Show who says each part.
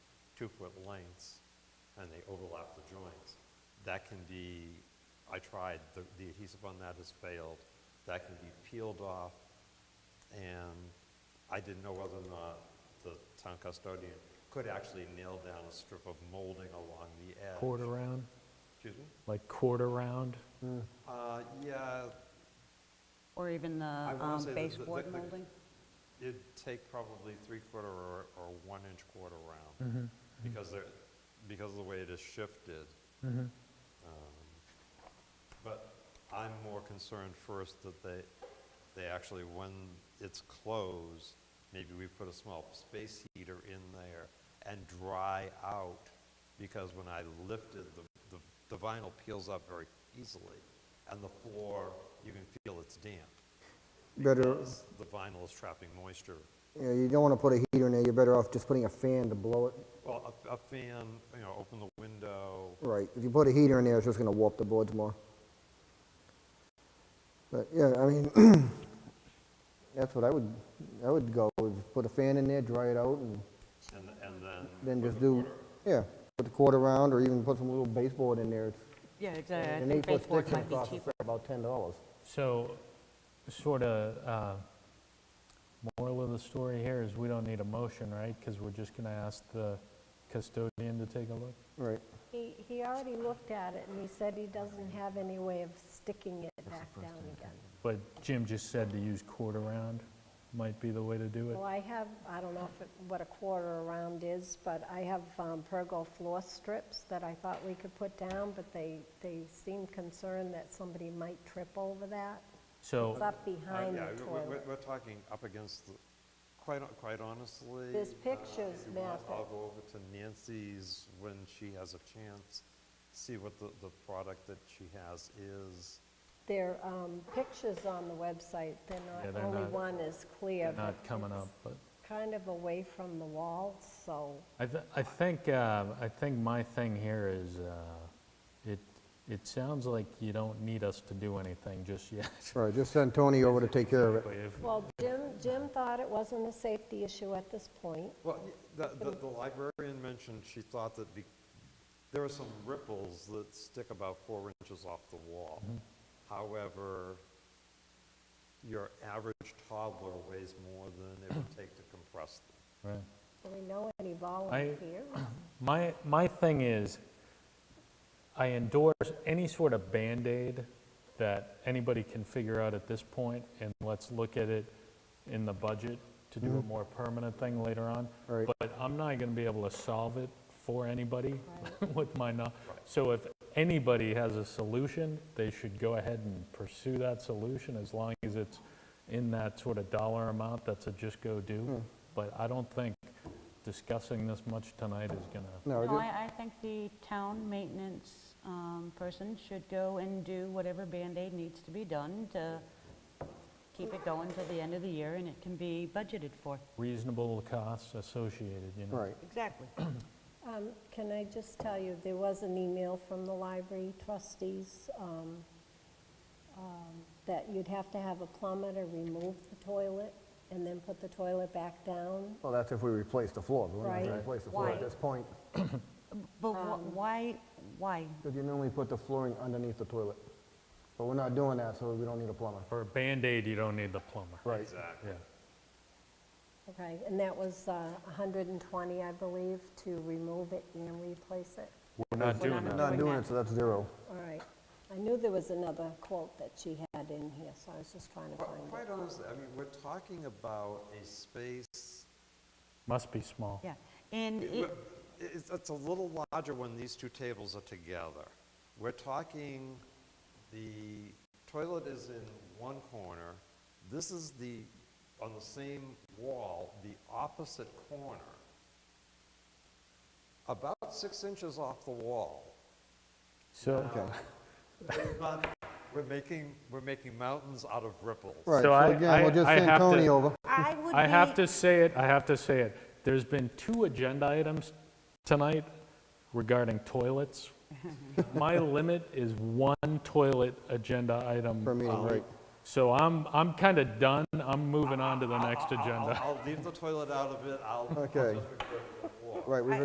Speaker 1: two-foot lengths, and they overlap the joints. That can be, I tried, the the adhesive on that has failed. That can be peeled off, and I didn't know whether or not the town custodian could actually nail down a strip of molding along the edge.
Speaker 2: quarter round,
Speaker 1: Excuse me?
Speaker 2: like quarter round?
Speaker 1: Uh, Yeah,
Speaker 3: Or even the
Speaker 1: wanna
Speaker 3: um,
Speaker 1: say that the- the-
Speaker 3: baseboard
Speaker 1: the-
Speaker 3: molding?
Speaker 1: it'd take probably three-quarter or, or one-inch quarter round, because they're, because of the way it is shifted. Um, But I'm more concerned first that they, they actually, when it's closed, maybe we put a small space heater in there and dry out, because when I lifted, the, the- the vinyl peels up very easily, and the floor, you can feel it's damp.
Speaker 4: Better,
Speaker 1: because The vinyl is trapping moisture.
Speaker 4: yeah, you don't want to put a heater in there, you're better off just putting a fan to blow it.
Speaker 1: Well, a, a fan, you know, open the window,
Speaker 4: Right, if you put a heater in there, it's just gonna warp the boards more. But, yeah, I mean, that's what I would, I would go, is put a fan in there, dry it out, and
Speaker 1: and, and then,
Speaker 4: then just do, yeah, put the quarter round, or even put some little baseboard in there. It's-
Speaker 3: Yeah, exactly. Uh, I
Speaker 4: An
Speaker 3: think
Speaker 4: eight-foot
Speaker 3: baseboard
Speaker 4: stick
Speaker 3: might
Speaker 4: would
Speaker 3: be
Speaker 4: cost us
Speaker 3: cheaper.
Speaker 4: about ten dollars.
Speaker 2: So, sort of, uh, moral of the story here is we don't need a motion, right? Because we're just going to ask the custodian to take a look?
Speaker 4: Right.
Speaker 5: He, he already looked at it, and he said he doesn't have any way of sticking it back down again.
Speaker 2: But Jim just said to use quarter round might be the way to do it.
Speaker 5: Well, I have, I don't know if it- what a quarter around is, but I have um, pergo floor strips that I thought we could put down, but they, they seem concerned that somebody might trip over that.
Speaker 2: So...
Speaker 5: It's up
Speaker 1: uh, yeah,
Speaker 5: behind the
Speaker 1: we- we-
Speaker 5: toilet.
Speaker 1: We're talking up against, the- quite, hon- quite honestly.
Speaker 5: There's
Speaker 1: uh, if
Speaker 5: pictures,
Speaker 1: you want,
Speaker 5: Matt,
Speaker 1: I'll
Speaker 5: that-
Speaker 1: go over to Nancy's when she has a chance, see what the, the product that she has is.
Speaker 5: There are um, pictures on the website,
Speaker 2: Yeah,
Speaker 5: they're
Speaker 2: they're
Speaker 5: not, only
Speaker 2: not-
Speaker 5: one is clear.
Speaker 2: they're
Speaker 5: but
Speaker 2: not coming
Speaker 5: it's
Speaker 2: up, but
Speaker 5: Kind of away from the wall, so
Speaker 2: I, th- I think, uh, I think my thing here is, uh, it, it sounds like you don't need us to do anything just yet.
Speaker 4: All right, just send Tony over to take care of it.
Speaker 2: If-
Speaker 5: Well, Jim, Jim thought it wasn't a safety issue at this point.
Speaker 1: Well, y- the, the, the librarian mentioned she thought that be, there are some ripples that stick about four inches off the wall. However, your average toddler weighs more than it would take to compress them.
Speaker 2: right.
Speaker 5: Do we know any volunteers?
Speaker 2: My, my thing is, I endorse any sort of Band-Aid that anybody can figure out at this point, and let's look at it in the budget to do a more permanent thing later on.
Speaker 4: Mm-hmm. Right.
Speaker 2: But I'm not gonna be able to solve it for anybody with my, know- so if anybody has a solution, they should go ahead and pursue that solution as long as it's in that sort of dollar amount that's a just go
Speaker 4: Hmm.
Speaker 2: do. But I don't think discussing this much tonight is gonna
Speaker 4: No,
Speaker 3: No,
Speaker 4: just-
Speaker 3: I, I think the town maintenance um, person should go and do whatever Band-Aid needs to be done to keep it going till the end of the year, and it can be budgeted for.
Speaker 2: reasonable costs associated, you know?
Speaker 4: right,
Speaker 3: Exactly.
Speaker 5: Um, Can I just tell you, there was an email from the library trustees um, um, that you'd have to have a plumber to remove the toilet and then put the toilet back down.
Speaker 4: well, that's if we replace the floor, but we're not gonna
Speaker 5: Right.
Speaker 4: replace the floor at
Speaker 3: Why?
Speaker 4: this point.
Speaker 3: But
Speaker 1: Um,
Speaker 3: wh- why, why?
Speaker 4: Because you normally put the flooring underneath the toilet. But we're not doing that, so we don't need a plumber.
Speaker 2: For a Band-Aid, you don't need the plumber.
Speaker 4: Right.
Speaker 1: Exactly.
Speaker 2: Yeah.
Speaker 5: Okay, and that was uh, 120, I believe, to remove it and replace it.
Speaker 2: We're not
Speaker 3: We're
Speaker 2: doing that.
Speaker 3: not
Speaker 4: Not doing it, so that's zero.
Speaker 5: All right. I knew there was another quote that she had in here, so I was just trying to
Speaker 1: But
Speaker 5: find it.
Speaker 1: Quite honestly, I mean, we're talking about a space,
Speaker 2: Must be small.
Speaker 3: Yeah. And
Speaker 1: it-
Speaker 3: it,
Speaker 1: it's, it's a little larger when these two tables are together. We're talking, the toilet is in one corner, this is the, on the same wall, the opposite corner, about six inches off the wall.
Speaker 2: So,
Speaker 1: We're not- We're making, we're making mountains out of ripples.
Speaker 4: Right,
Speaker 2: So
Speaker 4: so
Speaker 2: I-
Speaker 4: again, we'll
Speaker 2: I-
Speaker 4: just
Speaker 2: I
Speaker 4: send
Speaker 2: have to-
Speaker 4: Tony over.
Speaker 3: I would be...
Speaker 2: I have to say it, I have to say it. There's been two agenda items tonight regarding toilets. My limit is one toilet agenda item.
Speaker 4: Per meeting,
Speaker 2: Um,
Speaker 4: right.
Speaker 2: So I'm, I'm kind of done. I'm moving on to the next
Speaker 1: I'll-
Speaker 2: agenda.
Speaker 1: I'll leave the toilet out of it, I'll. I'll just
Speaker 4: Okay.
Speaker 1: refer to the wall.
Speaker 4: Right, we've